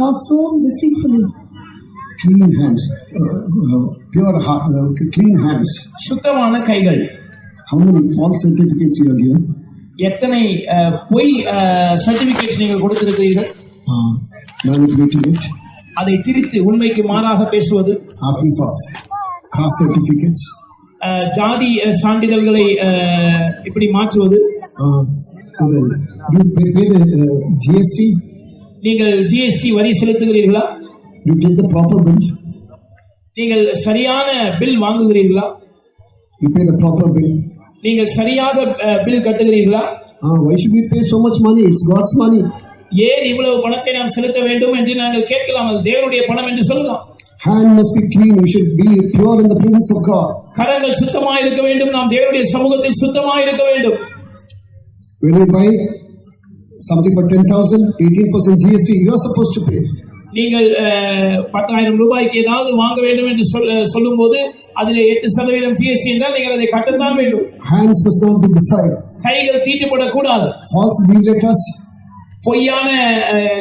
now sown deceitfully, clean hands, uh, uh, pure heart, uh, clean hands. சுத்தமான கைகள் How many false certificates you are given? எத்தனை அஹ், பொய் certificates நீங்கள் கொடுத்திருக்கிறீர்கள் Uh, manipulating it, அதை திரித்து உண்மைக்கு மாறாக பேசுவது asking for caste certificates, அஹ், ஜாதி அஹ், சான்றிதழ்களை அஹ், இப்படி மாற்றுவது uh, so that you pay, pay the uh, GST, நீங்கள் ஜிஎஸ்டி வரி செலுத்துகிறீர்களா you get the proper bill, நீங்கள் சரியான பில் வாங்குகிறீர்களா you pay the proper bill. நீங்கள் சரியாக பில் கட்டுகிறீர்களா Uh, why should we pay so much money? It's God's money. ஏன் இவ்வளவு பணத்தை நாம் செலுத்த வேண்டும் என்று நாங்கள் கேட்கலாம் அது தேவனுடைய பணம் என்று சொல்லலாம் Hand must be clean. You should be pure in the presence of God. கரங்கள் சுத்தமாக இருக்க வேண்டும் நாம் தேவனுடைய சமூகத்தில் சுத்தமாக இருக்க வேண்டும் When you buy something for 10,000, 18% GST, you are supposed to pay. நீங்கள் அஹ், பத்தாயிரம் ரூபாய்க்கு ஏதாவது வாங்க வேண்டும் என்று சொல் சொல்லும் போது அதில் எட்டு சதவீதம் ஜிஎஸ்டி என்றால் நீங்கள் அதை கட்டத்தான் வேண்டும் Hands must not be defiled. கைகள் தீட்டுப்படக்கூடாது False leave letters. பொய்யான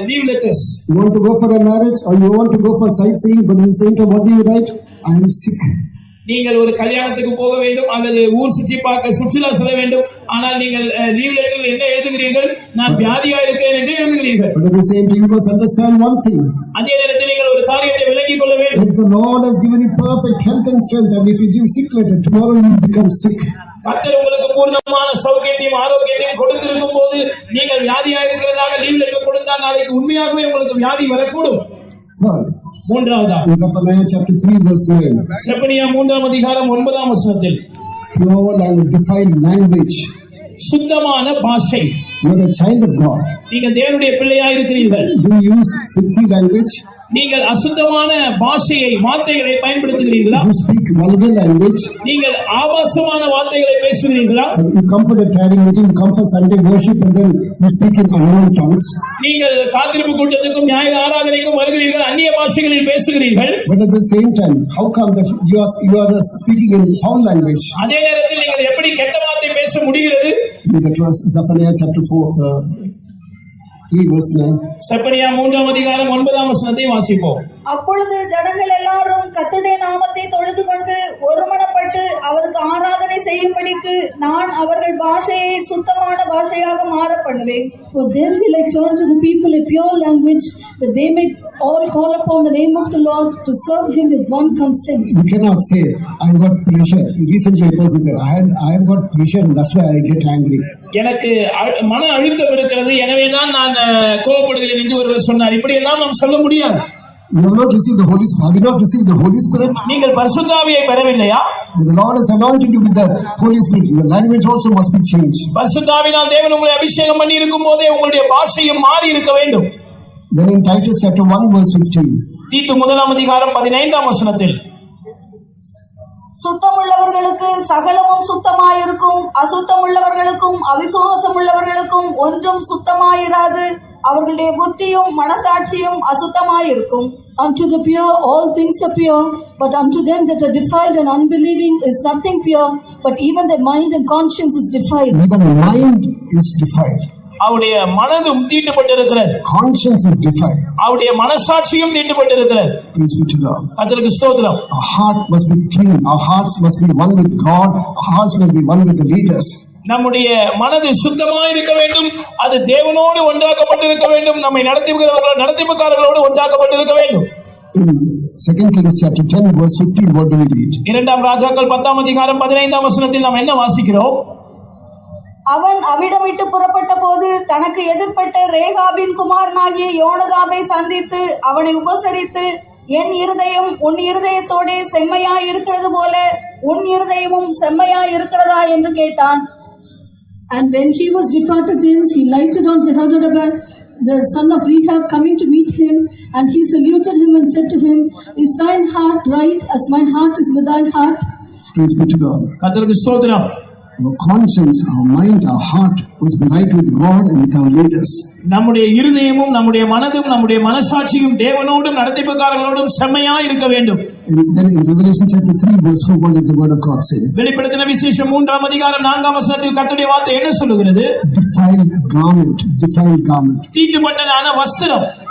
leave letters You want to go for a marriage or you want to go for sightseeing, but at the same time, what do you write? I am sick. நீங்கள் ஒரு கல்யாணத்துக்கு போக வேண்டும் அல்லது ஊர் சுற்றி பார்க்க சுற்றுலா செல்ல வேண்டும் ஆனால் நீங்கள் லீவ் லெட்டரில் என்ன எழுதுகிறீர்கள் நான் வியாதியா இருக்கேன் என்று எழுதுகிறீர்கள் But at the same time, you must understand one thing அதே நேரத்தில் நீங்கள் ஒரு காரியத்தை விளங்கிக் கொள்ள வேண்டும் that the Lord has given you perfect health and strength, and if you give sick letter, tomorrow you become sick. கர்த்தர் உங்களுக்கு பூர்ணமான சௌக்கியத்தையும் ஆரோக்கியத்தையும் கொடுத்திருக்கும் போது நீங்கள் வியாதியா இருக்கிறதாக லீவ் லெட்டர் கொடுத்தால் நாளைக்கு உண்மையாகவே உங்களுக்கு வியாதி வரக்கூடும் Third, மூன்றாவதா in Zephaniah chapter 3, verse 9, Zephaniah மூன்றாம் அதிகாரம் ஒன்பதாம் வசனத்தில் pure language, defiled language. சுத்தமான பாஷை You are a child of God. நீங்கள் தேவனுடைய பிள்ளையா இருக்கிறீர்கள் Do you use filthy language? நீங்கள் அசுத்தமான பாஷையை வார்த்தைகளை பயன்படுத்துகிறீர்களா You speak vulgar language? நீங்கள் ஆபாசமான வார்த்தைகளை பேசுகிறீர்களா You come for the tiring meeting, you come for Sunday worship, and then you speak in unknown tongues. நீங்கள் காத்திருப்பு கூட்டத்துக்கும் நியாய ஆராதனைக்கும் வருகிறீர்கள் அந்நிய பாஷைகளில் பேசுகிறீர்கள் But at the same time, how come that you are you are speaking in foul language? அதே நேரத்தில் நீங்கள் எப்படி கெட்ட வார்த்தை பேச முடிகிறது That was Zephaniah chapter four, uh, three verse nine. Zephaniah மூன்றாம் அதிகாரம் ஒன்பதாம் வசனத்தை வாசிப்போம் அப்பொழுது ஜனங்கள் எல்லாரும் கர்த்தருடைய நாமத்தை தொழுது கொண்டு ஒருமனப்பட்டு அவருக்கு ஆராதனை செய்யும்படிக்கு நான் அவர்கள் பாஷையை சுத்தமான பாஷையாக மாற பண்ணுவேன் for then will I turn to the people a pure language, that they may all call upon the name of the Lord to serve him with one consent. You cannot say I've got pressure. Recently, a person said I had I've got pressure, and that's why I get angry. எனக்கு அழு- மன அழுத்தம் இருக்கிறது எனவே தான் நான் அஹ், கோபப்படுகிறேன் என்று ஒருவர் சொன்னார் இப்படி எல்லாம் நாம் சொல்ல முடியாது You have not received the Holy Spirit. Have you not received the Holy Spirit? நீங்கள் பரிசுத்தாவியை பெறவில்லையா The Lord has anointed you with the Holy Spirit. Your language also must be changed. பரிசுத்தாவினால் தேவன் உங்களை அபிஷேகம் பண்ணி இருக்கும் போதே உங்களுடைய பாஷையும் மாறி இருக்க வேண்டும் Then in Titus chapter one verse fifteen. தீத்து முதலாம் அதிகாரம் பதினைந்தாம் வசனத்தில் சுத்தமுள்ளவர்களுக்கு சகலமும் சுத்தமாயிருக்கும் அசுத்தமுள்ளவர்களுக்கும் அவிசுவாசம் உள்ளவர்களுக்கும் ஒன்றும் சுத்தமாயிராது அவர்களுடைய புத்தியும் மனசாட்சியும் அசுத்தமாயிருக்கும் Unto the pure all things are pure, but unto them that are defiled and unbelieving is nothing pure, but even their mind and conscience is defiled. Even mind is defiled. அவருடைய மனதும் தீட்டுப்பட்டிருக்கிறது Conscience is defiled. அவருடைய மனசாட்சியும் தீட்டுப்பட்டிருக்கிறது Praise be to God. கத்தருக்கு ஸ்தோத்திரம் Our heart must be clean. Our hearts must be one with God. Our hearts must be one with the leaders. நம்முடைய மனது சுத்தமா இருக்க வேண்டும் அது தேவனோடு ஒன்றாக்கப்பட்டிருக்க வேண்டும் நம்மை நடத்துகிறவர்கள் நடத்திப்புக்காரர்களோடு ஒன்றாக்கப்பட்டிருக்க வேண்டும் In 2 Kings chapter 10, verse 15, what do we read? இரண்டாம் ராஜாக்கள் பத்தாம் அதிகாரம் பதினைந்தாம் வசனத்தில் நாம் என்ன வாசிக்கிறோம் அவன் அவிடமிட்டு புறப்பட்ட போது தனக்கு எதிர்ப்பட்ட ரேகாபின் குமாரனாகிய யோனதாபை சந்தித்து அவனை உபசரித்து என் இருதயம் உன் இருதயத்தோடே செம்மையா இருக்கிறது போல உன் இருதயமும் செம்மையா இருக்கிறதா என்று கேட்டான் And when he was departed thence, he lighted on Jehoshaphat, the son of Rehab, coming to meet him, and he saluted him and said to him, Is thine heart right as my heart is with thine heart? Praise be to God. கத்தருக்கு ஸ்தோத்திரம் Our conscience, our mind, our heart must be right with God and with our leaders. நம்முடைய இருதயமும் நம்முடைய மனதும் நம்முடைய மனசாட்சியும் தேவனோடும் நடத்திப்புக்காரர்களோடும் செம்மையா இருக்க வேண்டும் And then in Revelation chapter 3, verse 4, what does the word of God say? வெளிப்படுத்தின விசேஷம் மூன்றாம் அதிகாரம் நான்காம் வசனத்தில் கர்த்தருடைய வார்த்தை என்ன சொல்லுகிறது Defiled garment, defiled garment. தீட்டுப்பட்டதான வஸ்திரம்